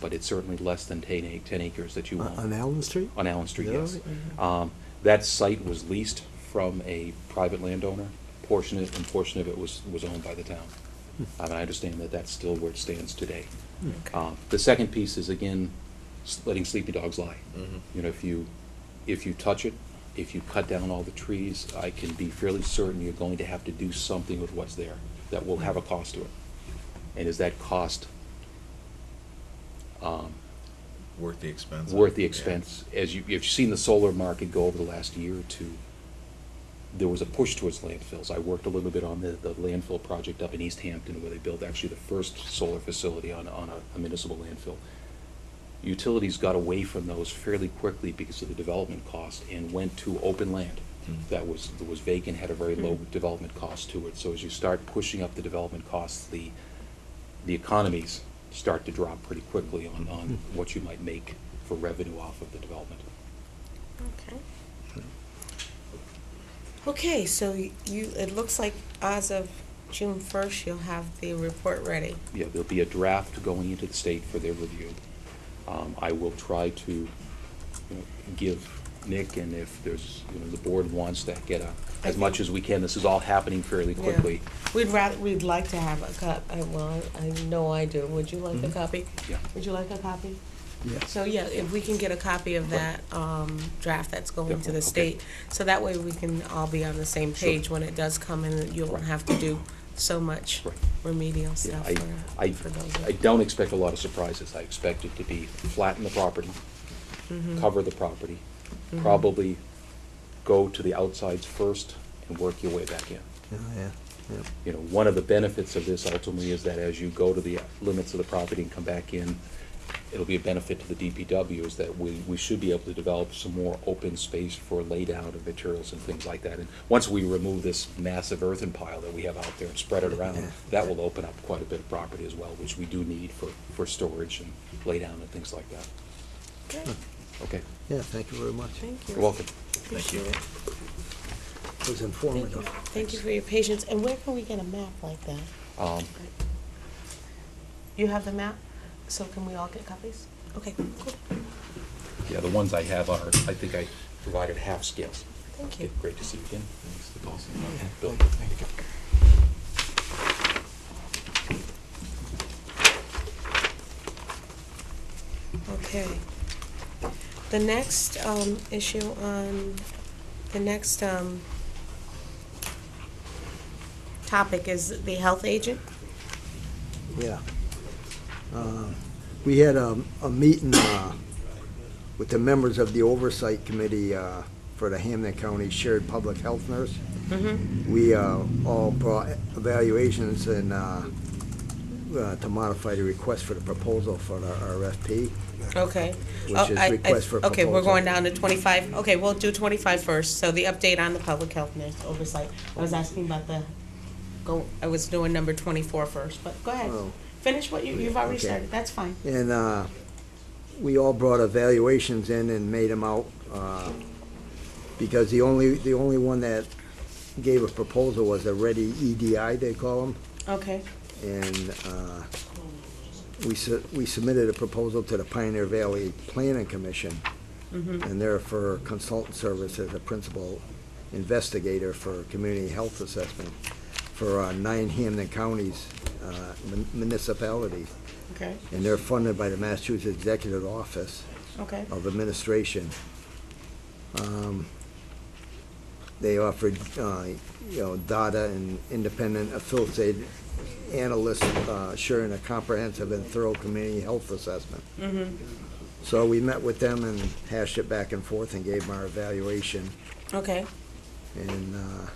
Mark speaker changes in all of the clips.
Speaker 1: but it's certainly less than 10 ac- 10 acres that you
Speaker 2: On- Uh,
Speaker 1: own.
Speaker 2: On Allen Street?
Speaker 1: On Allen Street,
Speaker 2: Yeah,
Speaker 1: yes.
Speaker 2: yeah.
Speaker 1: Um, That site was leased from a private landowner, portion of, and portion of it was, was owned by the town.
Speaker 2: Hmm.
Speaker 1: And I understand that that's still where it stands today. Um, The second piece is, again, s- letting sleepy dogs lie. You know, if you, if you touch it, if you cut down all the trees, I can be fairly certain you're going to have to do something with what's there that will have a cost to it. And is that cost
Speaker 3: Worth the expense.
Speaker 1: worth the
Speaker 3: Yeah.
Speaker 1: expense. As you, if you've seen the solar market go over the last year or two, there was a push towards landfills. I worked a little bit on the, the landfill project up in East Hampton where they built actually the first solar facility on, on a- a municipal landfill. Utilities got away from those fairly quickly because of the development cost and went to open land
Speaker 3: Mm.
Speaker 1: that was, that was vacant, had a very
Speaker 4: Hmm.
Speaker 1: low development cost to it. So as you start pushing up the development costs, the, the economies start to drop pretty quickly on, on what you might make for revenue off of the development.
Speaker 4: Okay. Okay, so y- you, it looks like as of June first, you'll have the report ready.
Speaker 1: Yeah, there'll be a draft going into the state for their review. Um, I will try to, you know, give Nick, and if there's, you know, the board wants to get a,
Speaker 4: I
Speaker 1: as much
Speaker 4: think-
Speaker 1: as we can, this is all happening fairly
Speaker 4: Yeah.
Speaker 1: quickly.
Speaker 4: We'd rather, we'd like to have a cop, I- well, I know I do. Would you like a
Speaker 2: Mhm.
Speaker 4: copy?
Speaker 1: Mm-hmm. Yeah.
Speaker 4: Would you like a copy?
Speaker 2: Yes.
Speaker 4: So, yeah, if we can get a copy of that, um, draft that's going to
Speaker 1: Definitely,
Speaker 4: the
Speaker 1: okay.
Speaker 4: state. So that way we can all be on the same
Speaker 1: Sure.
Speaker 4: page when it does come and you won't
Speaker 1: Right.
Speaker 4: have to do so much
Speaker 1: Right.
Speaker 4: remedial
Speaker 1: Yeah,
Speaker 4: stuff
Speaker 1: I,
Speaker 4: for,
Speaker 1: I,
Speaker 4: for those.
Speaker 1: I don't expect a lot of surprises. I expect it to be flatten the property,
Speaker 4: Mhm.
Speaker 1: cover the property,
Speaker 4: Mhm.
Speaker 1: probably go to the outsides first and work your way back in.
Speaker 2: Yeah, Oh, yeah, yeah.
Speaker 1: You know, one of the benefits of this ultimately is that as you go to the limits of the property and come back in, it'll be a benefit to the DPW is that we, we should be able to develop some more open space for laydown of materials and things like that. And once we remove this massive earthen pile that we have out there and spread it around,
Speaker 2: Yeah.
Speaker 1: that will open up quite a bit of property as well, which we do need for, for storage and laydown and things like that.
Speaker 4: Great.
Speaker 1: Okay,
Speaker 2: Yeah, thank you very much.
Speaker 4: Thank you.
Speaker 1: you're welcome.
Speaker 3: Thank you.
Speaker 2: It was
Speaker 4: Thank you.
Speaker 2: informative.
Speaker 4: Thank you for your patience. And where can we get a map like that?
Speaker 1: Um,
Speaker 4: You have the map? So can we all get copies? Okay, cool.
Speaker 1: yeah, the ones I have are, I think I provided half scales.
Speaker 4: Thank you.
Speaker 1: Okay, Great to see you again. Thanks to both of you. Bill.
Speaker 4: Okay. The next um, issue on, the next um, topic is the health agent.
Speaker 2: Yeah. Uh, We had a, a meeting uh, with the members of the Oversight Committee uh, for the Hamden County Shared Public Health Nurse.
Speaker 4: Mm-hmm.
Speaker 2: We uh, all brought evaluations and uh, uh, to modify the request for the proposal for the RFP.
Speaker 4: Okay.
Speaker 2: Which
Speaker 4: Oh,
Speaker 2: is
Speaker 4: I- I-
Speaker 2: request for
Speaker 4: Okay, we're
Speaker 2: proposal.
Speaker 4: going down to twenty-five. Okay, we'll do twenty-five first. So the update on the public health nurse oversight. I was asking about the, go, I was doing number twenty-four first, but go ahead.
Speaker 2: Oh.
Speaker 4: Finish what you, you've already
Speaker 2: Okay.
Speaker 4: started. That's fine.
Speaker 2: And uh, we all brought evaluations in and made them out, uh, because the only, the only one that gave a proposal was a ready EDI, they call them,
Speaker 4: Okay.
Speaker 2: and uh, we su- we submitted a proposal to the Pioneer Valley Planning Commission, and they're for consultant service as a principal investigator for community health assessment for uh, nine Hamden counties, uh, mun- municipalities
Speaker 4: Okay,
Speaker 2: and they're funded by the Massachusetts Executive Office
Speaker 4: okay.
Speaker 2: of Administration. Um, They offered, uh, you know, data and independent affiliated analysts uh, sharing a comprehensive and thorough community health assessment.
Speaker 4: Mm-hmm.
Speaker 2: So we met with them and hashed it back and forth and gave them our evaluation,
Speaker 4: Okay,
Speaker 2: and uh,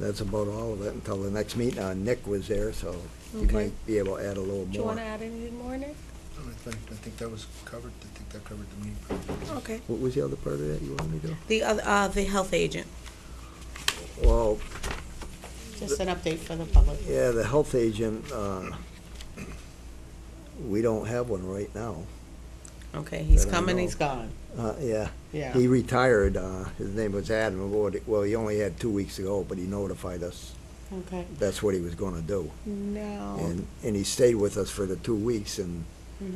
Speaker 2: that's about all of it until the next meeting. Uh, Nick was there, so he
Speaker 4: Okay.
Speaker 2: might be able to add a little more.
Speaker 4: do you wanna add anything more, Nick?
Speaker 5: I think, I think that was covered, I think that covered the meat.
Speaker 4: Okay.
Speaker 2: What was the other part of that you wanted me to do?
Speaker 4: The other, uh, the health agent,
Speaker 2: Well,
Speaker 4: just an update for the public.
Speaker 2: yeah, the health agent, uh, we don't have one right now.
Speaker 4: Okay, he's
Speaker 2: Then I
Speaker 4: coming, he's
Speaker 2: know.
Speaker 4: gone,
Speaker 2: Uh, yeah,
Speaker 4: yeah.
Speaker 2: he retired, uh, his name was Adam Lord, well, he only had two weeks ago, but he notified us
Speaker 4: Okay,
Speaker 2: that's what he was gonna do.
Speaker 4: no.
Speaker 2: And, and he stayed with us for the two weeks and